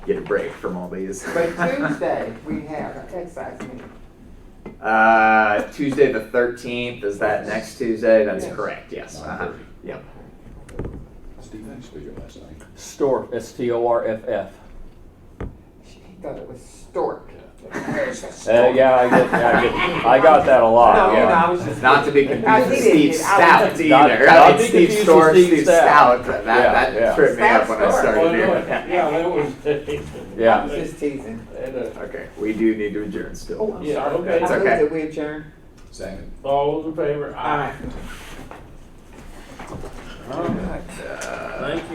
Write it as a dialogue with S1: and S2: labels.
S1: get a break from all these.
S2: But Tuesday, we have an excise meeting.
S1: Uh, Tuesday the thirteenth, is that next Tuesday? That's
S2: Yes.
S1: correct, yes. Uh-huh. Yep.
S3: Steve, thanks for your last name.
S4: Storf, S T O R F F.
S2: She thought it was stork.
S4: Uh, yeah, I get, yeah, I get, I got that a lot.
S2: No,
S4: yeah.
S2: no, I was just.
S1: Not to be confused with
S2: he didn't
S1: Steve
S2: get- I
S1: Stout
S2: was-
S1: either.
S4: Not-
S1: I
S4: not
S1: mean,
S4: be
S1: Steve
S4: confused with
S1: Storr,
S4: Steve
S1: Steve
S4: Stout.
S1: Stout, that,
S4: Yeah,
S1: that
S4: yeah.
S1: that tripped me
S2: Stout
S1: up when I
S2: Storr.
S1: started
S5: Well,
S1: doing
S5: no,
S1: it.
S5: Yeah, that was.
S4: Yeah.
S2: I was just teasing.
S5: And, uh,
S1: Okay, we do need to adjourn
S2: Oh,
S1: still.
S2: I'm
S5: Yeah,
S2: sorry.
S5: okay.
S1: It's
S2: I
S1: okay.
S2: moved that we adjourn.
S3: Second.
S5: All those in favor?
S2: All right.
S5: All right.
S1: Uh,
S5: Thank you.